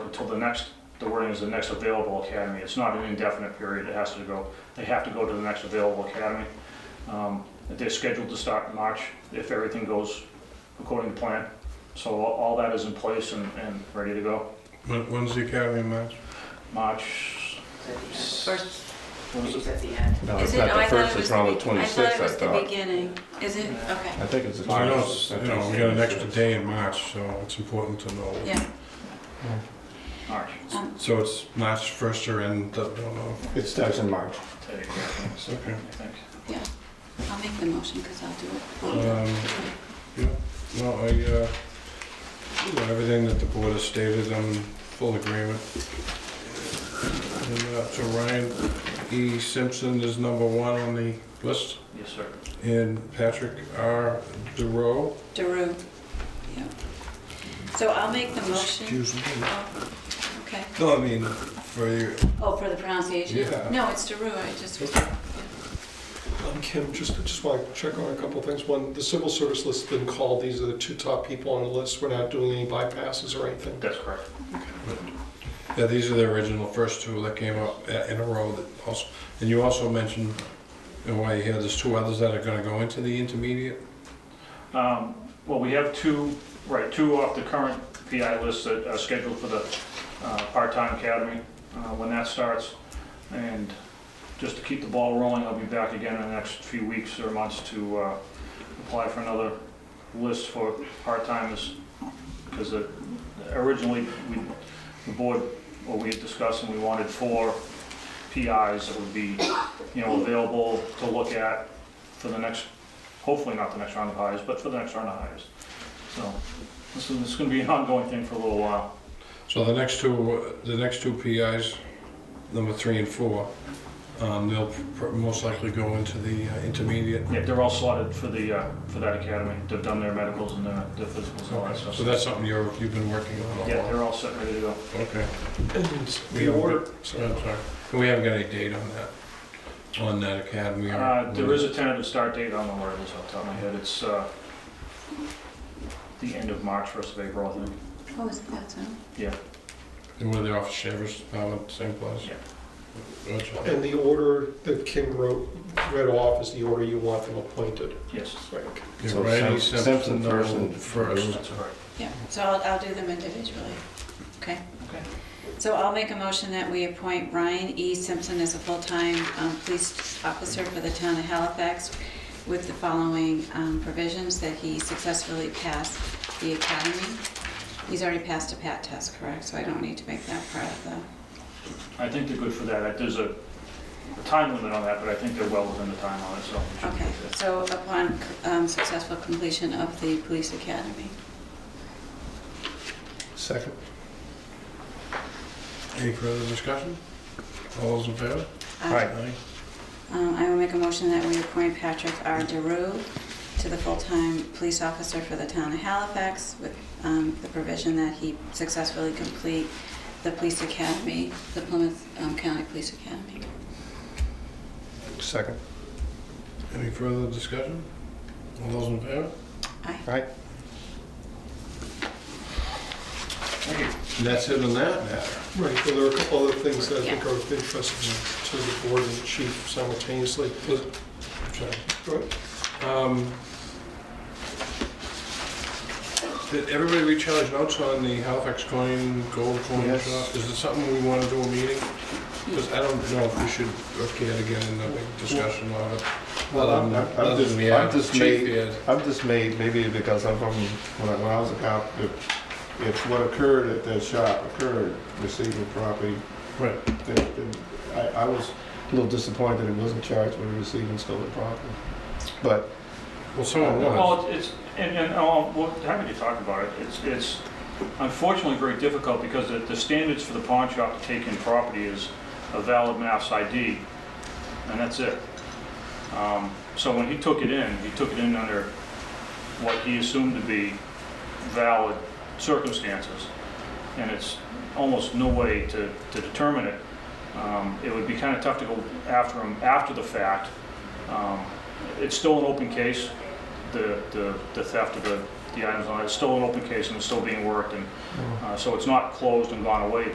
until the next, the wording is the next available academy. It's not an indefinite period, it has to go, they have to go to the next available academy. Um, They're scheduled to start in March if everything goes according to plan. So all all that is in place and, and ready to go. When, when's the academy match? March, First what is page it? at the end. No, Is it's it, not no, the I thought first, it was it's the, around the be- I thought it was twenty-sixth, I the thought. beginning. Is it, okay, I think it's the So I know finals. it's- You know, we got an extra day in March, so it's important to know. yeah. March. Um, So it's March first or end, I don't know. It starts in March. Today, I Okay. think. I'll make the motion because I'll do it. Um, yeah, no, I, uh, everything that the board has stated, I'm in full agreement. And, uh, so Ryan E. Simpson is number one on the list, Yes, sir. and Patrick R. DeRoe. Daru. Yeah. So I'll make the motion. Excuse me. Oh, Okay. No, I mean, for you, Oh, for the pronunciation? Yeah. No, it's Daru, I just was, Um, Kim, just, just want to check on a couple of things. One, the civil service list's been called, these are the two top people on the list, we're not doing any bypasses or anything. That's correct. yeah, these are the original first two that came up a- in a row that also, and you also mentioned, and why you here, there's two others that are gonna go into the intermediate? Um, Well, we have two, right, two off the current PI list that are scheduled for the uh, part-time academy uh, when that starts. And just to keep the ball rolling, I'll be back again in the next few weeks or months to uh, apply for another list for part-timers. Because originally, we, the board, what we had discussed, and we wanted four PIs that would be, you know, available to look at for the next hopefully not the next round of hires, but for the next round of hires. So this is, this is gonna be an ongoing thing for a little while. So the next two, the next two PIs, number three and four, um, they'll pr- most likely go into the uh, intermediate. Yeah, they're all slotted for the, uh, for that academy. They've done their medicals and their, their physicals and all that stuff. So that's something you're, you've been working on all Yeah, along? they're all set, ready to go. Okay. And We the haven't order, got- so I'm sorry. We haven't got any date on that, on that academy? or- Uh, there is a tentative start date, I don't know where it is off the top of my head. It's, uh, the end of March, first of April, I think. oh, is it that zone? Were they off Sheriff's Department, uh, same place? Yeah. Yeah. and the order that Kim wrote, read off is the order you want them appointed. Yes, Right. So Randy Simp- Simpson, Simpson first no, and first. that's correct. Yeah, so I'll, I'll do them individually. Okay. Okay. So I'll make a motion that we appoint Ryan E. Simpson as a full-time um, police officer for the town of Halifax with the following um, provisions, that he successfully passed the academy. He's already passed a PAT test, correct? So I don't need to make that part of the, I think they're good for that. There's a a time limit on that, but I think they're well within the time on it, so. we should okay. be good. So upon um, successful completion of the police academy. Second. Any further discussion? All those in favor? Um, Aye. Um, I will make a motion that we appoint Patrick R. DeRue to the full-time police officer for the town of Halifax with um, the provision that he successfully complete the police academy, the Plymouth um, County Police Academy. Second. Any further discussion? All those in favor? Aye. Right? Thank you. And that's it on that matter. Right, well, there are a couple other things that I think are of interest to the board and the chief simultaneously. Sorry. Go ahead. Um, Did everybody recharge notes on the Halifax coin, gold coin Yes. shop? Is it something we want to do a meeting? Because I don't know if we should, okay, to get in a big discussion on it. Well, I'm, I'm- I'm Other just, than we I'm have just chief made, here. I'm just made, maybe because I'm from, when I, when I was a cop, if, if what occurred at that shop occurred, receiving property, Right. then, then I, I was a little disappointed it wasn't charged with receiving stolen property. But Well, someone was. Well, it's, and, and, oh, well, happy to talk about it. It's, it's unfortunately very difficult because the, the standards for the pawn shop to take in property is a valid mass ID, and that's it. Um, So when he took it in, he took it in under what he assumed to be valid circumstances, and it's almost no way to, to determine it. Um, It would be kind of tough to go after him after the fact. Um, It's still an open case, the, the the theft of the the items on it. It's still an open case and it's still being worked, and uh, so it's not closed and gone away,